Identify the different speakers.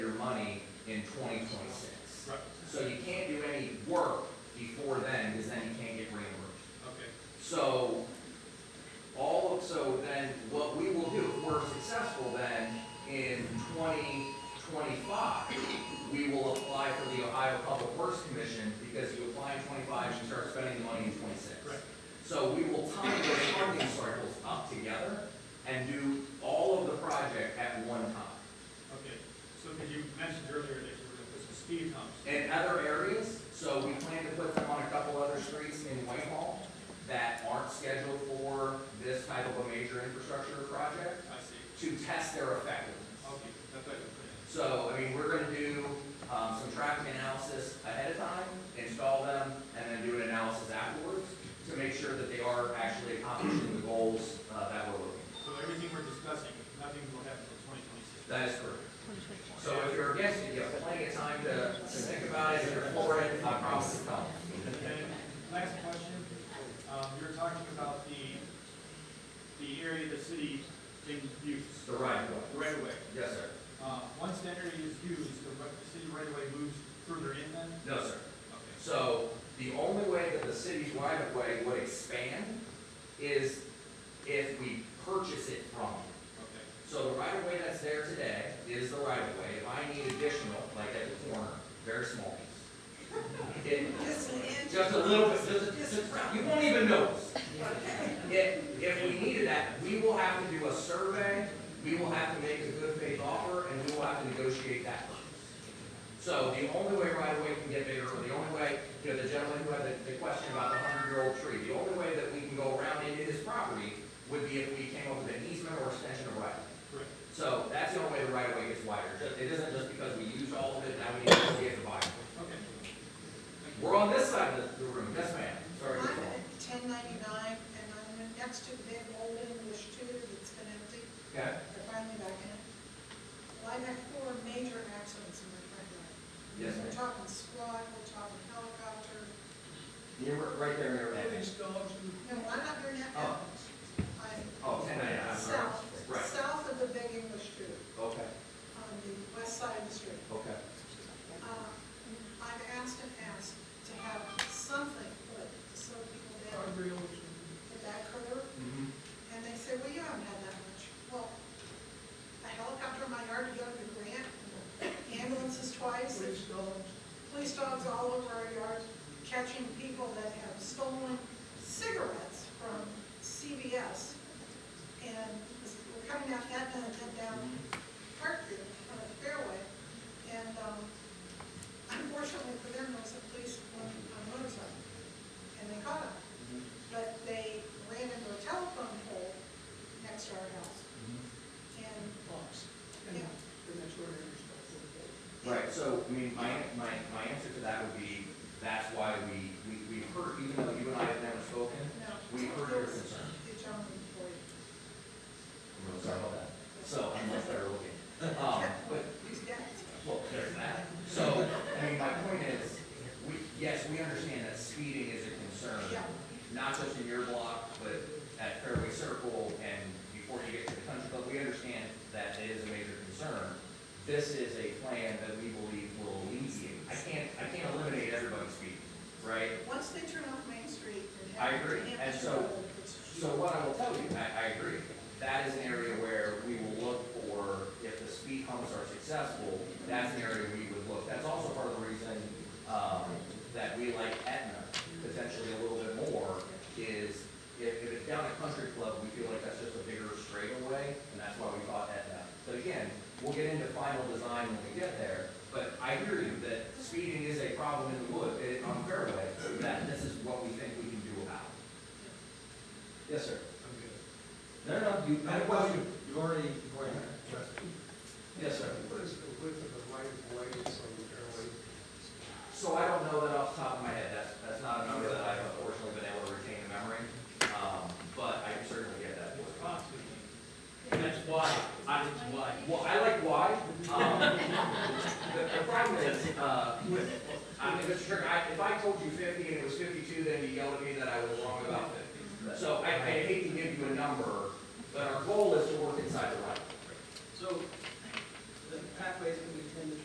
Speaker 1: in twenty twenty-six.
Speaker 2: Right.
Speaker 1: So you can't do any work before then, because then you can't get reimbursed.
Speaker 2: Okay,
Speaker 1: So, all, of so then, what we will do, if we're successful then, in twenty twenty-five, we will apply for the Ohio Public Works Commission, because you apply in twenty-five, you start spending the money in twenty-six.
Speaker 2: Correct.
Speaker 1: So we will tie those funding cycles up together and do all of the project at one time.
Speaker 2: okay. So because you mentioned earlier that you were going to put some speed humps.
Speaker 1: in other areas, so we plan to put them on a couple other streets in Whitehall that aren't scheduled for this type of a major infrastructure project
Speaker 2: I see.
Speaker 1: to test their effectiveness.
Speaker 2: Okay, that's what I can put in.
Speaker 1: So, I mean, we're gonna do, um, some traffic analysis ahead of time, install them, and then do an analysis afterwards to make sure that they are actually accomplishing the goals, uh, that we're looking. for.
Speaker 2: So everything we're discussing, nothing will happen until twenty twenty-six.
Speaker 1: That is correct. So if you're against it, you have plenty of time to, to think about it, if you're for it, I promise it's coming.
Speaker 2: And last question, um, you were talking about the, the area the city can use,
Speaker 1: The right
Speaker 2: the
Speaker 1: one.
Speaker 2: right of way.
Speaker 1: Yes, sir.
Speaker 2: Uh, once that area is used, the right- the city right of way moves further in then?
Speaker 1: No, sir.
Speaker 2: Okay.
Speaker 1: So the only way that the city's right of way would expand is if we purchase it from them.
Speaker 2: Okay,
Speaker 1: So the right of way that's there today is the right of way. If I need additional, like at the corner, very small piece. It-
Speaker 3: Just an inch.
Speaker 1: Just a little bit, just, just, around. you won't even notice.
Speaker 3: Okay.
Speaker 1: If, if we needed that, we will have to do a survey, we will have to make a good faith offer, and we will have to negotiate that. price. So the only way right away can get bigger, or the only way, you know, the gentleman who had the, the question about the hundred-year-old tree, the only way that we can go around into his property would be if we came up with an easement or extension of right.
Speaker 2: correct.
Speaker 1: So that's the only way the right away gets wider. It isn't just because we used all of it, now we need to get the buyer.
Speaker 2: Okay. Thank you.
Speaker 1: We're on this side of the the room, yes, ma'am,
Speaker 3: I'm
Speaker 1: sorry.
Speaker 3: at ten ninety-nine, and I'm next to a big old English tutor that's been empty,
Speaker 1: Okay,
Speaker 3: they're finally back in. Well, I've had four major accidents in my front yard.
Speaker 1: yes,
Speaker 3: We're
Speaker 1: ma'am.
Speaker 3: talking squad, we're talking helicopter,
Speaker 4: You're right there in your
Speaker 5: Police
Speaker 4: right.
Speaker 5: dogs and
Speaker 3: no, I'm not doing that
Speaker 1: Oh.
Speaker 3: now. I'm
Speaker 1: Oh, ten ninety-nine, I'm sorry.
Speaker 3: south,
Speaker 1: Right,
Speaker 3: south of the big English tutor,
Speaker 1: okay,
Speaker 3: on the west side of the street.
Speaker 1: okay.
Speaker 3: Uh, I've asked and asked to have something put, to slow people down,
Speaker 5: guardrails.
Speaker 3: but that curve
Speaker 1: Mm-hmm.
Speaker 3: And they said, well, you haven't had that much. Well, a helicopter in my yard to go to the grant,
Speaker 5: and
Speaker 3: ambulances twice,
Speaker 5: Police dogs.
Speaker 3: police dogs all over our yard, catching people that have stolen cigarettes from CVS. And we're coming out that and then down Parkview on the fairway. And um, unfortunately for them, there was a police on on motorcycle. And they caught them but they ran into a telephone pole next to our house. And,
Speaker 5: Mm-hmm. Box. And
Speaker 3: Yeah.
Speaker 5: and that's where they were
Speaker 1: Right, so, I mean, my, my, my answer to that would be, that's why we, we, we heard, even though you and I have never spoken,
Speaker 3: no.
Speaker 1: we heard your concern.
Speaker 3: The gentleman for you.
Speaker 1: We're sorry about that. So, unless they're looking. Um, but,
Speaker 3: He's dead.
Speaker 1: well, there's that. So, I mean, my point is, we, yes, we understand that speeding is a concern,
Speaker 3: Yeah.
Speaker 1: not just in your block, but at Fairway Circle and before you get to the country club, we understand that it is a major concern. This is a plan that we believe will alleviate. I can't, I can't eliminate everybody's speeding, right?
Speaker 3: Once they turn off Main Street and
Speaker 1: I
Speaker 3: have.
Speaker 1: agree. And so- So what I will tell you, I, I agree, that is an area where we will look for, if the speed humps are successful, that's an area we would look. That's also part of the reason, um, that we like Etna potentially a little bit more, is if, if it's down at Country Club, we feel like that's just a bigger straightaway, and that's why we thought Etna. But again, we'll get into final design when we get there, but I hear you that speeding is a problem in the wood, eh, on Fairway, that this is what we think we can do about it. Yes, sir. No, no, you, I
Speaker 4: Well,
Speaker 1: was you.
Speaker 4: you- you've already, you've already addressed it.
Speaker 1: Yes, sir.
Speaker 6: What is the width of the right of way that's on the fairway?
Speaker 1: So I don't know that off the top of my head, that's, that's not a number that I've unfortunately been able to retain in memory, um, but I can certainly get that. for you.
Speaker 2: Response to me.
Speaker 1: And that's why, I, why, well, I like why, um, the, the problem is, uh, with, I mean, Mr. Trigger, I, if I told you fifty and it was fifty-two, then you yelled at me that I was wrong about fifty. So I, I hate to give you a number, but our goal is to work inside the right.
Speaker 5: So, the pathways and